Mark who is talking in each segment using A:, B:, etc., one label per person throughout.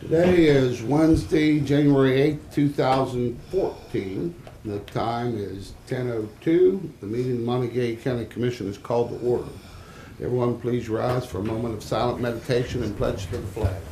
A: Today is Wednesday, January eighth, two 2014. The time is 10:02. The meeting of the Montague County Commission is called to order. Everyone, please rise for a moment of silent meditation and pledge to the flag.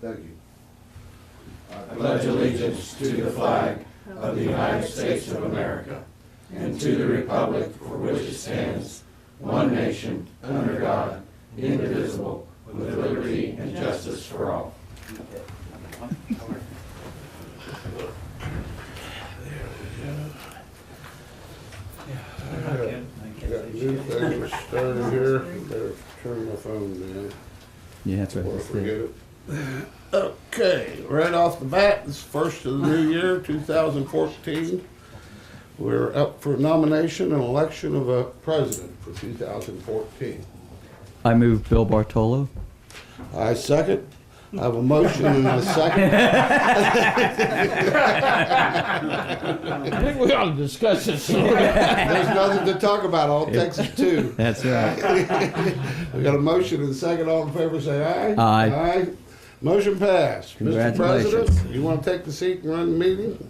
A: Thank you.
B: pledge allegiance to the flag of the United States of America and to the republic for which it stands, one nation, under God, indivisible, with liberty and justice for all.
A: Got new thing was started here, better turn my phone down
C: Yeah, that's right.
A: before I
C: That's the-
A: forget it. Okay, right off the bat, this is first of the new year, two thousand fourteen. We're up for nomination and election of a president for two thousand fourteen.
C: I move Bill Bartolo.
A: I second. I have a motion and a second.
D: I think we ought to discuss this.
A: There's nothing to talk about, all Texas two.
C: That's right.
A: We got a motion and a second, all in favor, say aye.
C: Aye.
A: Aye. Motion passed. Mr. President,
C: Congratulations.
A: you wanna take the seat and run the meeting?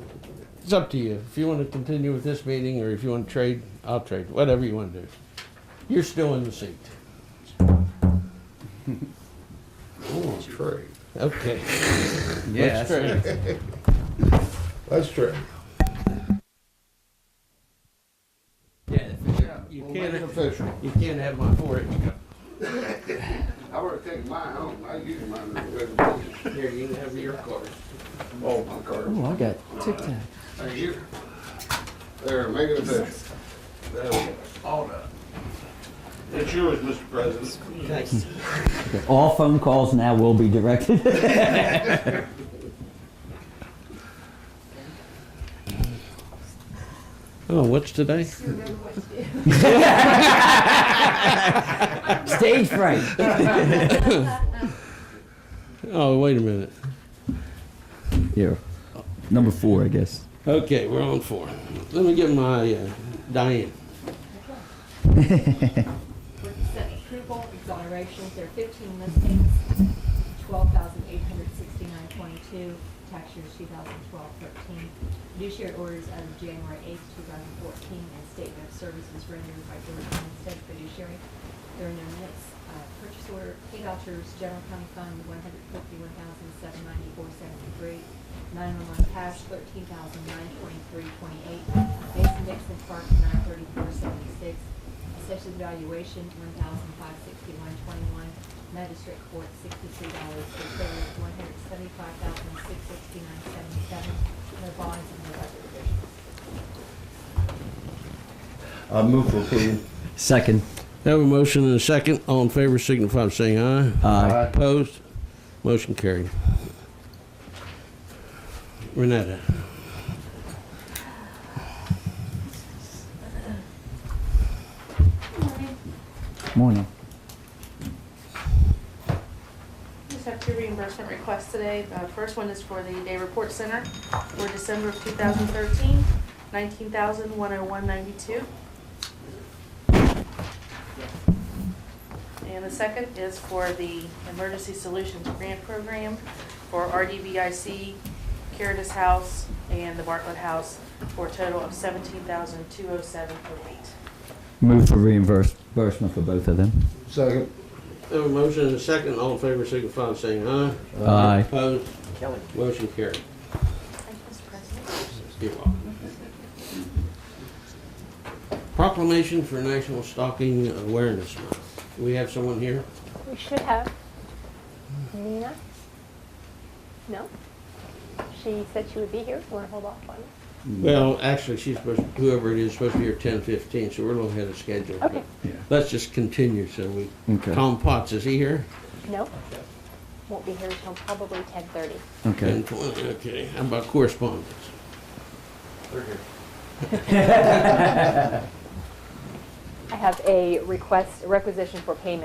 D: It's up to you. If you want to continue with this meeting or if you want to trade, I'll trade, whatever you want to do. You're still in the seat.
A: Oh, trade.
D: Okay.
C: Yeah.
D: Let's trade.
A: Let's trade.
D: You
A: We'll make it
D: can't,
A: official.
D: you can't have my four inch cup.
A: I would have taken mine home. I used mine as a regular.
D: Here, you can have your card.
A: Oh, my card.
C: Oh, I got Tic Tac.
A: Thank you. There, make it official. There we go. All done. It's yours, Mr. President.
C: Okay, All phone calls now will be directed.
D: Oh, what's today?
C: Stage fright.
D: Oh, wait a minute.
C: Here, number four, I guess.
D: Okay, we're on four. Let me get my uh, Diane.
E: Represent approval, exonerations, there are fifteen listings, twelve thousand eight hundred sixty-nine twenty-two, tax years 2012-13. Fiduciary orders as of January eighth, two thousand fourteen, and statement of services rendered by George Homestead fiduciary. There are no minutes, uh, purchase order, pay vouchers, general county fund, one hundred fifty-one thousand seven ninety-four seventy-three, nine-one-one cash, thirteen thousand nine twenty-three twenty-eight, Mason Dixon Park, nine thirty-four seventy-six, Assessors valuation, one thousand five sixty-one twenty-one. Magistrate court, sixty-three dollars per case, one hundred seventy-five thousand six sixty-nine seventy-seven. No bonds and no other provisions.
F: I move for approval.
C: Second.
D: Have a motion and a second. All in favor signify by saying aye.
C: Aye.
D: Opposed? Motion carried. Renetta.
C: Morning.
G: Just have two reimbursement requests today. The first one is for the Day Report Center for December of 2013, $19,101.92. And the second is for the Emergency Solutions Grant Program for RDVIC, Caritas House, and the Bartlett House for a total of $17,207.08.
C: Move for reimbursement for both of them.
A: Second.
D: Have a motion and a second. All in favor signify by saying aye.
C: Aye.
D: Opposed? Motion carried.
G: Thank you, Mr. President.
D: You're welcome. Proclamation for National Stalking Awareness Month. Do we have someone here?
H: We should have. Nina? No? She said she would be here, so we're gonna hold off on it.
C: Mm.
D: Well, actually, she's supposed, whoever it is, supposed to be here ten fifteen, so we're a little ahead of schedule.
H: Okay.
C: Yeah.
D: Let's just continue, so we,
C: Okay.
D: Tom Potts, is he here?
H: No? Won't be here until probably ten thirty.
C: Okay.
D: 10:20, Okay, how about correspondence?
H: I have a request, requisition for payment